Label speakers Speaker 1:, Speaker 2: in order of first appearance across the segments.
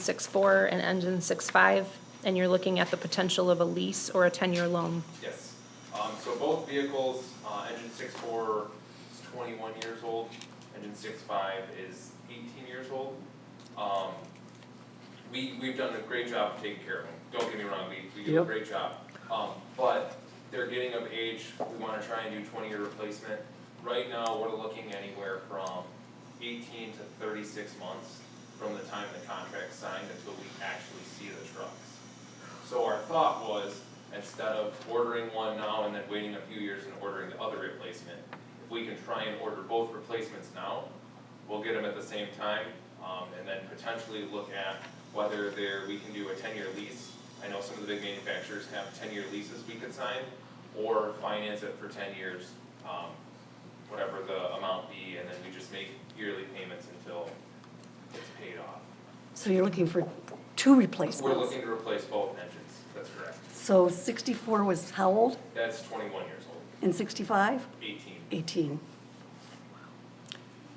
Speaker 1: six four and engine six five, and you're looking at the potential of a lease or a ten-year loan.
Speaker 2: Yes, um, so both vehicles, uh, engine six four is twenty-one years old, engine six five is eighteen years old. Um, we, we've done a great job of taking care of them, don't get me wrong, we, we do a
Speaker 3: Yep.
Speaker 2: great job. Um, but they're getting of age, we wanna try and do twenty-year replacement. Right now, we're looking anywhere from eighteen to thirty-six months from the time the contract's signed until we actually see the trucks. So our thought was, instead of ordering one now and then waiting a few years and ordering the other replacement, if we can try and order both replacements now, we'll get them at the same time, um, and then potentially look at whether there, we can do a ten-year lease. I know some of the big manufacturers have ten-year leases we could sign, or finance it for ten years, um, whatever the amount be, and then we just make yearly payments until it's paid off.
Speaker 3: So you're looking for two
Speaker 2: We're
Speaker 3: replacements?
Speaker 2: looking to replace both engines, that's correct.
Speaker 3: So 64 was how old
Speaker 2: That's twenty-one years old.
Speaker 3: and 65?
Speaker 2: 18.
Speaker 3: 18.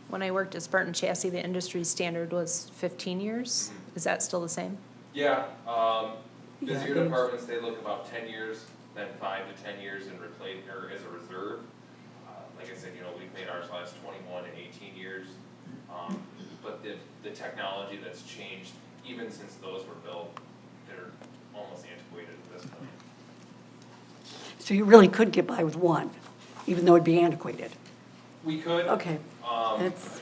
Speaker 1: When I worked at Spartan Chassis, the industry standard was fifteen years. Is that still the same?
Speaker 2: Yeah, um,
Speaker 3: Yeah,
Speaker 2: busier
Speaker 3: it's-
Speaker 2: departments, they look about ten years, then five to ten years in replace, or as a reserve. Uh, Like I said, you know, we've made ours last twenty-one and eighteen years, um, but the, the technology that's changed, even since those were built, they're almost antiquated at this point.
Speaker 3: So you really could get by with one, even though it'd be antiquated.
Speaker 2: We could,
Speaker 3: Okay,
Speaker 2: um,
Speaker 3: that's,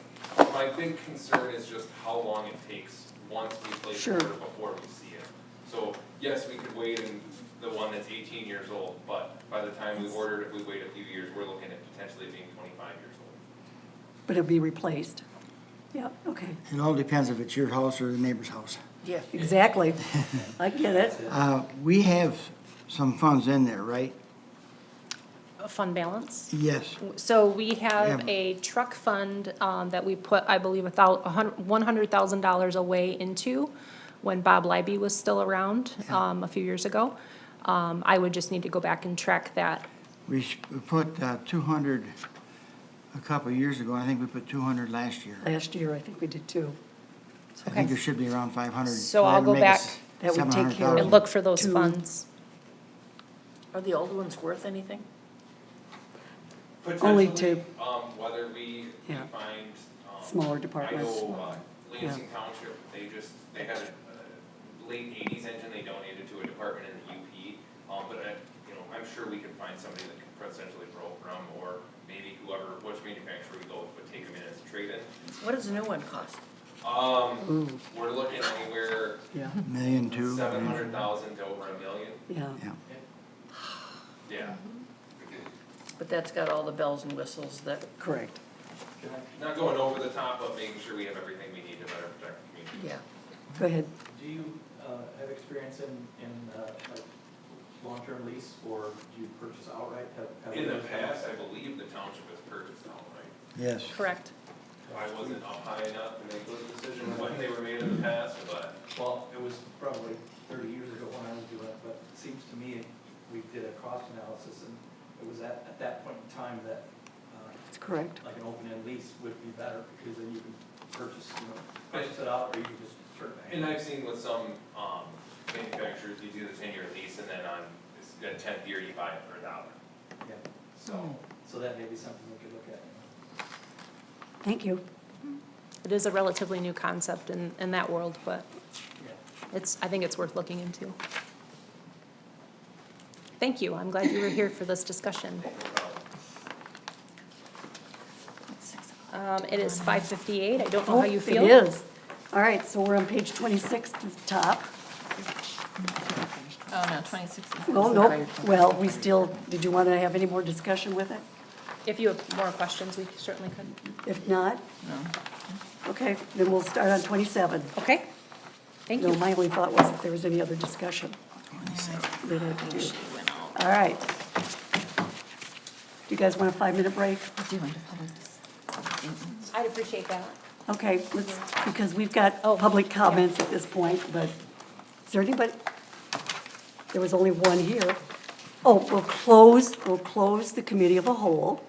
Speaker 2: my big concern is just how long it takes once we place the
Speaker 3: Sure.
Speaker 2: order before we see it. So, yes, we could wait in the one that's eighteen years old, but by the time we order it, if we wait a few years, we're looking at potentially being twenty-five years old.
Speaker 3: but it'd be replaced. Yeah, okay,
Speaker 4: It all depends if it's your house or the neighbor's house.
Speaker 3: exactly. I get it.
Speaker 4: Uh, We have some funds in there, right?
Speaker 1: A fund balance?
Speaker 4: Yes.
Speaker 1: So we have
Speaker 4: Yeah.
Speaker 1: a truck fund, um, that we put, I believe, a thou, a hun- one hundred thousand dollars away into when Bob Libey was still around, um, a few years ago. Um, I would just need to go back and track that.
Speaker 4: We s- we put uh, 200 a couple of years ago, I think we put 200 last year.
Speaker 3: Last year, I think we did two.
Speaker 4: I think
Speaker 1: Okay.
Speaker 4: there should be around 500.
Speaker 1: So I'll go
Speaker 4: Make it s-
Speaker 3: back. That would take care of-
Speaker 1: And
Speaker 4: 700,000.
Speaker 1: look for those
Speaker 3: Two.
Speaker 1: funds.
Speaker 5: Are the old ones worth anything?
Speaker 3: Only two.
Speaker 2: Potentially, um, whether we we
Speaker 3: Yeah.
Speaker 2: find, um.
Speaker 3: Smaller
Speaker 2: I
Speaker 3: departments.
Speaker 2: know, uh, Lansing Township, they just, they had a uh, late eighties engine they donated to a department in the UP. Um, but I, you know, I'm sure we could find somebody that could potentially program, or maybe whoever, which manufacturer we go with would take them in as a trade-in.
Speaker 5: What does a new one cost?
Speaker 2: Um, we're looking anywhere
Speaker 3: Yeah,
Speaker 4: Million, two.
Speaker 2: seven hundred thousand to over a million,
Speaker 3: yeah.
Speaker 4: Yeah.
Speaker 2: yeah.
Speaker 5: But that's got all the bells and whistles that,
Speaker 3: Correct.
Speaker 2: Not going over the top, but making sure we have everything we need to better protect the community.
Speaker 5: yeah.
Speaker 3: Go ahead.
Speaker 6: Do you uh, have experience in, in uh, like long-term lease or do you purchase outright? Have- have
Speaker 2: In the
Speaker 6: you-
Speaker 2: past, I believe the township has purchased outright.
Speaker 4: Yes.
Speaker 1: Correct.
Speaker 2: I wasn't up high enough to make those decisions when they were made in the past, but
Speaker 6: Well, it was probably thirty years ago when I was doing it, but it seems to me we did a cost analysis and it was at, at that point in time that uh,
Speaker 3: That's correct.
Speaker 6: like an open-end lease would be better because then you can purchase, you know, purchase it out or you can just turn it back.
Speaker 2: And I've seen with some, um, manufacturers, you do the ten-year lease and then on this- the tenth year, you buy it for a dollar.
Speaker 6: Yeah, Hmm.
Speaker 2: So,
Speaker 6: so that may be something we could look at. you know.
Speaker 3: Thank you.
Speaker 1: It is a relatively new concept in, in that world, but
Speaker 6: Yeah.
Speaker 1: it's, I think it's worth looking into. Thank you, I'm glad you were here for this discussion.
Speaker 2: no problem.
Speaker 1: Um, it is five fifty-eight, I don't know how you
Speaker 3: Oh,
Speaker 1: feel.
Speaker 3: It is. All right, so we're on page 26 at the top.
Speaker 5: Oh, no, twenty-six is.
Speaker 3: Well, no, Oh, well, we still, did you want to have any more discussion with it?
Speaker 1: If you have more questions, we certainly could.
Speaker 3: If not? No. Okay, then we'll start on 27.
Speaker 1: Okay, thank
Speaker 3: No,
Speaker 1: you.
Speaker 3: my only thought was if there was any other discussion. that I could do. All right. Do you guys want a five-minute break?
Speaker 1: I'd appreciate that.
Speaker 3: Okay, let's, because we've got
Speaker 1: Oh,
Speaker 3: public comments at this point, but is there anybody? There was only one here. Oh, we'll close, we'll close the committee of a whole.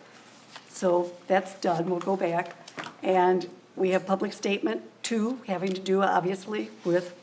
Speaker 3: So that's done, we'll go back. And we have public statement two, having to do obviously with